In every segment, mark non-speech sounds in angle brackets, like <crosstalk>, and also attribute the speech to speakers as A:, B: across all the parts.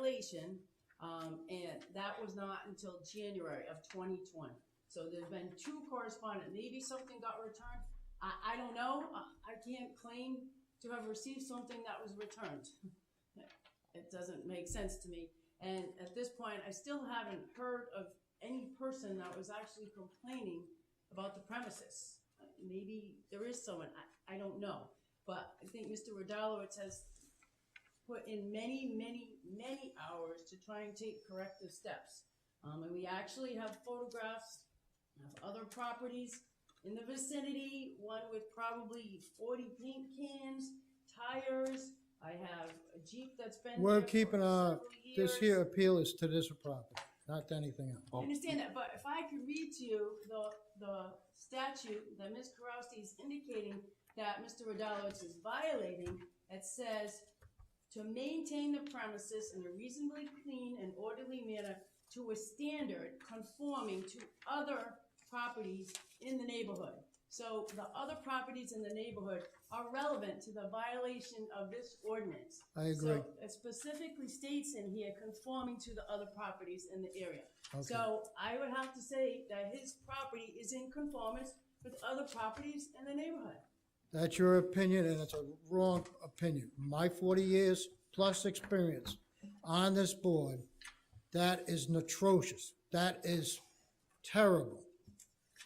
A: completion, um, and that was not until January of twenty twenty. So there's been two correspondent, maybe something got returned, I, I don't know, I, I can't claim to have received something that was returned. <laughs> It doesn't make sense to me, and at this point, I still haven't heard of any person that was actually complaining about the premises. Uh, Maybe there is someone, I, I don't know, but I think Mr. Rodalowicz has put in many, many, many hours to try and take corrective steps. Um, and we actually have photographs of other properties in the vicinity, one with probably forty paint cans, tires. I have a Jeep that's been.
B: We're
A: there for
B: keeping our,
A: several years.
B: this here appeal is to this property, not to anything else.
A: I understand that, but if I could read to you the, the statute that Ms. Karowski is indicating that Mr. Rodalowicz is violating, it says, "To maintain the premises in a reasonably clean and orderly manner to a standard conforming to other properties in the neighborhood." So the other properties in the neighborhood are relevant to the violation of this ordinance.
B: I agree.
A: So it specifically states in here conforming to the other properties in the area.
B: Okay.
A: So I would have to say that his property is in conformance with other properties in the neighborhood.
B: That's your opinion, and it's a wrong opinion. My 40 years plus experience on this board, that is atrocious. That is terrible.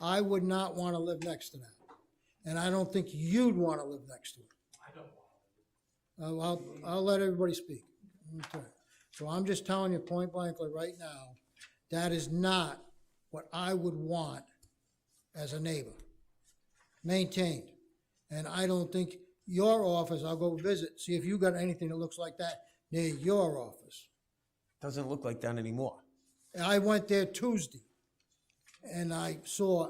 B: I would not want to live next to that. And I don't think you'd want to live next to it.
C: I don't want to.
B: Uh, I'll, I'll let everybody speak. Okay. So I'm just telling you point blankly right now, that is not what I would want as a neighbor, maintained. And I don't think your office, I'll go visit, see if you got anything that looks like that near your office.
D: Doesn't look like that anymore.
B: And I went there Tuesday, and I saw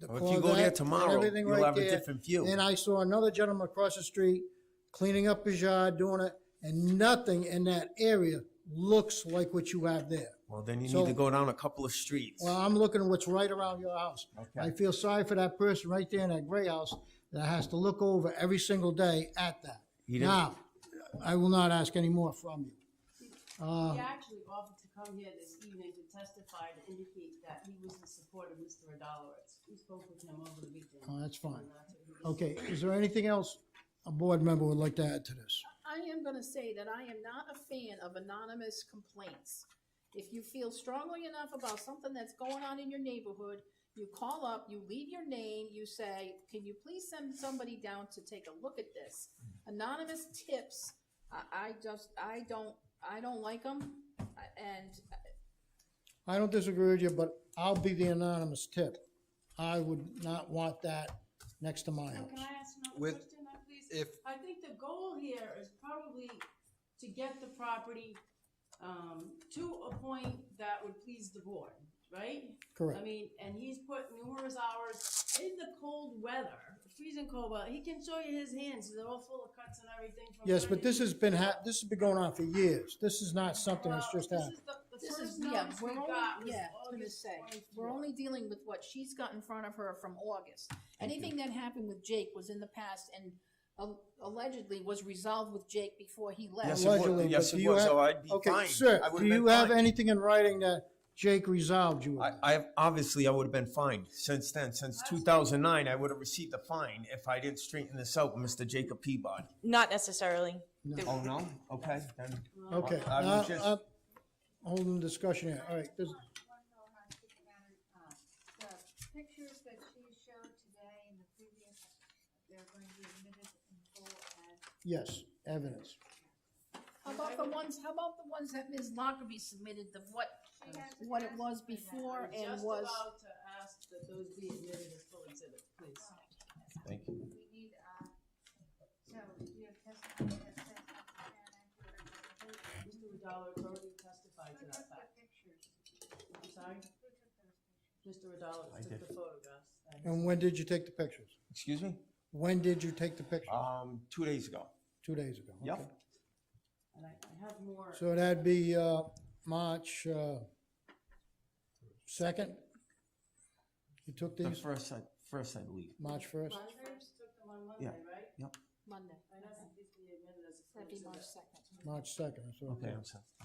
B: the
D: Well, if you go there
B: Corvette and
D: tomorrow,
B: everything
D: you'll
B: right
D: have a
B: there.
D: different view.
B: Then I saw another gentleman across the street cleaning up his yard, doing it, and nothing in that area looks like what you have there.
D: Well, then you
B: So-
D: need to go down a couple of streets.
B: Well, I'm looking at what's right around your house.
D: Okay.
B: I feel sorry for that person right there in that gray house that has to look over every single day at that.
D: He didn't-
B: Now, I will not ask any more from you.
A: He actually offered to come here this evening to testify to indicate that he was in support of Mr. Adalowicz. We spoke with him over the weekend.
B: Oh, that's fine.
A: And that's what he was-
B: Okay, is there anything else a board member would like to add to this?
E: I am gonna say that I am not a fan of anonymous complaints. If you feel strongly enough about something that's going on in your neighborhood, you call up, you leave your name, you say, can you please send somebody down to take a look at this? Anonymous tips, I, I just, I don't, I don't like them, and uh,
B: I don't disagree with you, but I'll be the anonymous tip. I would not want that next to my
A: Now, Can
B: house.
A: I ask another
F: With-
A: question, uh, please?
F: if-
A: I think the goal here is probably to get the property, um, to a point that would please the board, right? I
B: Correct.
A: mean, and he's put numerous hours in the cold weather, freezing cold weather. He can show you his hands; they're all full of cuts and everything. From
B: Yes, but
A: burning-
B: this has been, hap- this has been going on for years. This is not something
A: Well,
B: that's just
A: this
B: happened.
A: is the- the
E: this
A: first
E: is, yeah,
A: notice we
E: we're
A: got
E: only,
A: was
E: yeah, I was gonna
A: August
E: say,
A: 24.
E: we're only dealing with what she's got in front of her from August. Anything that happened with Jake was in the past and al- allegedly was resolved with Jake before he left.
D: Yes, it was.
B: Allegedly, but
D: Yes, it
B: do you
D: was,
B: have-
D: so I'd be
B: Okay,
D: fine.
B: sir,
D: I would've
B: do you
D: been
B: have
D: fine.
B: anything in writing that Jake resolved you
D: I,
B: with?
D: I have, obviously, I would have been fined since then. Since 2009, I would have received a fine if I didn't straighten this out, Mr. Jacob Peabody.
G: Not necessarily.
D: Oh, no? Okay, then.
B: Okay,
D: I was
B: now,
D: just-
B: I'm holding discussion here. All right, this,
H: One more housekeeping matter, uh, the pictures that she showed today and the previous, they're going to be admitted in full as
B: yes, evidence.
E: How about the ones, how about the ones that Ms. Lockerbie submitted, the what,
H: she has.
E: what it was
H: asked for that.
E: before
A: I'm
E: and
A: just
E: was?
A: about to ask that those be admitted as full exhibits, please.
D: Thank you.
H: We need, uh, so do you have testimony that says that you can actually represent
A: Mr. Rodalowicz already testified to
H: Who
A: that
H: took the
A: fact.
H: pictures?
A: I'm sorry,
H: Who took those pictures?
A: Mr. Rodalowicz took the photographs. and-
B: And when did you take the pictures?
D: Excuse me?
B: When did you take the pictures?
D: Um, two days ago.
B: Two days ago. okay.
D: Yep.
A: And I I have more.
B: Oh. So that'd be, uh, March, uh, second? You took
D: The
B: these,
D: first, I- first, I believe.
B: March first?
A: Monitors took them on
D: Yeah.
A: Monday, right?
D: Yep.
E: Monday,
A: I know that these be admitted as a full
E: that'd be March
A: exhibit.
E: second.
B: March second, so.
D: Okay, I'm sorry.